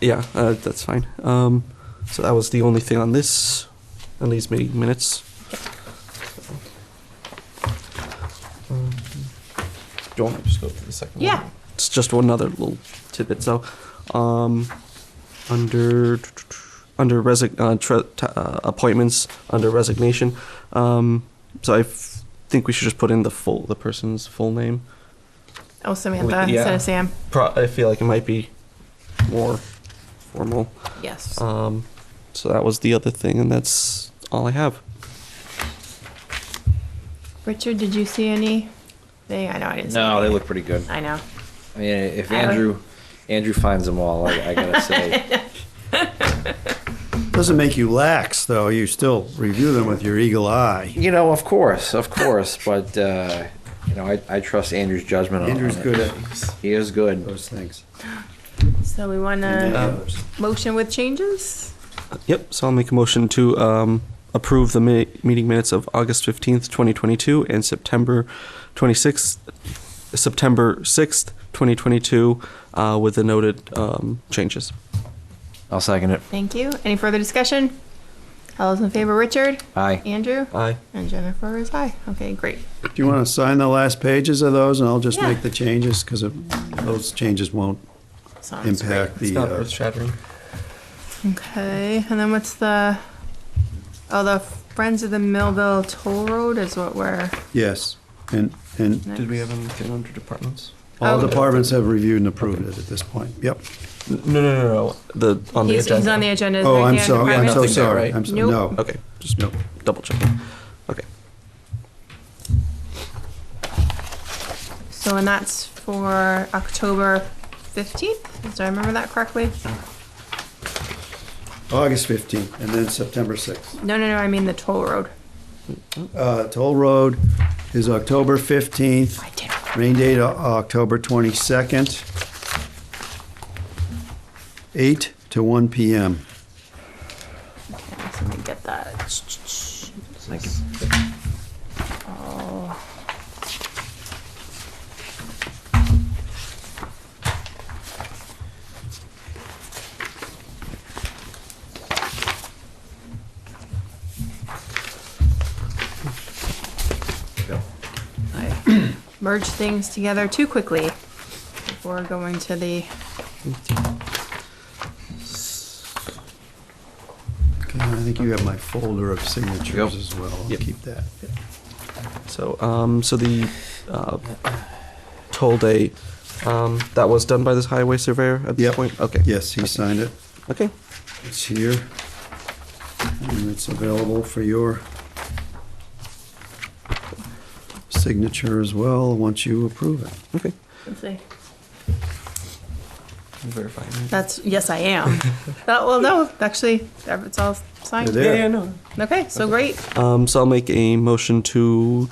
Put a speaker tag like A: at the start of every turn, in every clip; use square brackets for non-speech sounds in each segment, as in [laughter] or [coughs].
A: Yeah, uh, that's fine. Um, so that was the only thing on this, on these meeting minutes. Um, Do you want me to just go through the second one?
B: Yeah.
A: It's just one other little tidbit. So, um, under under resign uh, tre- t- uh, appointments under resignation. Um, so I f- think we should just put in the full the person's full name.
B: Oh, Samantha
A: We- yeah.
B: instead of Sam.
A: Pro- I feel like it might be more formal.
B: Yes.
A: Um, so that was the other thing, and that's all I have.
B: Richard, did you see any thing? I know I didn't. see
C: No, they
B: anything.
C: look pretty good.
B: I know.
C: I mean, if
B: I don't-
C: Andrew, Andrew finds them all, I, I
B: [laughs]
C: gotta say,
D: Doesn't make you lax, though. You still review them with your eagle eye.
C: you know, of course, of course, but, uh, you know, I, I trust Andrew's judgment on
D: Andrew's
C: on it.
D: good at
C: He is good.
D: those things.
B: So we want
D: And the
B: to
D: others.
B: motion with changes.
A: Yep. So I'll make a motion to um, approve the mi- meeting minutes of August fifteenth, twenty twenty-two, and September twenty-sixth, September sixth, twenty twenty-two, uh, with the noted um, changes.
C: I'll second it.
B: Thank you. Any further discussion? All those in favor, Richard,
C: Aye.
B: Andrew,
A: Aye.
B: and Jennifer is aye. Okay, great.
D: Do you want to sign the last pages of those, and I'll just
B: Yeah.
D: make the changes, because those changes won't
B: Sounds great.
D: impact the, uh,
A: shattering.
B: Okay, and then what's the? Oh, the Friends of the Millville Toll Road is what we're.
D: yes. And, and
B: next.
A: Did we have anything under departments?
D: all
B: Okay.
D: departments have reviewed and approved it at this point. Yep.
A: No, no, no, no. The on
B: he's,
A: the agenda.
B: he's on the agenda.
D: Oh,
B: right
D: I'm
B: there,
D: sorry, I'm
B: department.
D: so
A: Nothing there,
D: sorry.
A: right?
D: I'm so,
B: Nope.
D: no.
A: Okay. Just
D: Nope.
A: double checking. Okay.
B: So, and that's for October 15th? Do I remember that correctly?
D: August 15th, and then September 6th.
B: No, no, no, I mean the toll road.
D: Uh, Toll Road is October 15th.
B: I did.
D: Rain date, O- October 22nd, 8 to 1 PM.
B: Okay, so let me get that.
C: Thank you.
B: Oh, I merged things together too quickly before going to the
D: Okay, I think you have my folder of
C: Yep.
D: signatures as well. I'll
A: Yep.
D: keep that.
A: So, um, so the uh, toll day um, that was done by this highway surveyor at this
D: Yep.
A: point. Okay.
D: Yes, he signed it.
A: Okay.
D: It's here. And it's available for your signature as well, once you approve it.
A: Okay.
B: let's see.
A: I'm verifying. that.
B: That's yes, I am. that, well, no, actually, it's all signed.
D: It is. Yeah.
A: no.
B: Okay, so great.
A: Um, so I'll make a motion to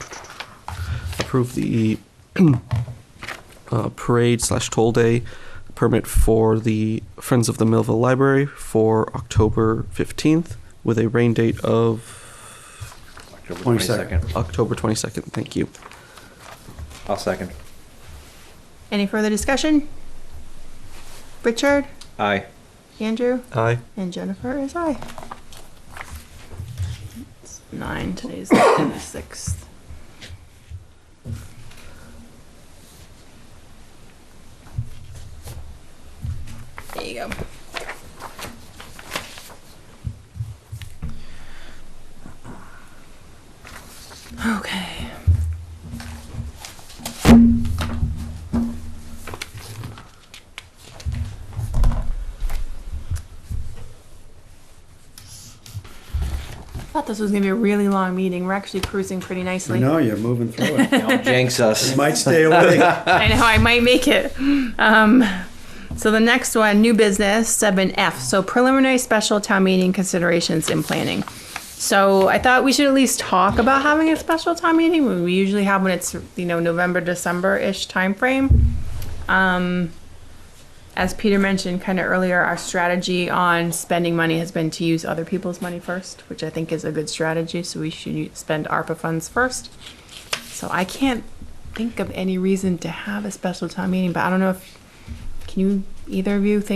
A: approve the [clears throat] uh, parade slash toll day permit for the Friends of the Millville Library for October fifteenth with a rain date of
C: October
D: 22nd.
C: 22nd.
A: October twenty-second. Thank you.
C: I'll second.
B: Any further discussion? Richard, [laughs]
C: Aye.
B: Andrew,
A: Aye.
B: and Jennifer is I. It's nine. Today's the [coughs] sixth. There you go. Okay. I thought this was gonna be a really long meeting. We're actually cruising pretty
D: I
B: nicely.
D: know, you're moving through it.
C: Don't jinx us.
D: You might stay awake.
B: I know I might make it. Um, so the next one, new business seven F. So preliminary special town meeting considerations and planning. So I thought we should at least talk about having a special town meeting. We usually have when it's you know November December ish timeframe. Um, as Peter mentioned kind of earlier, our strategy on spending money has been to use other people's money first, which I think is a good strategy. So we should u- spend ARPA funds first. So I can't think of any reason to have a special town meeting, but I don't know if, can you, either of you think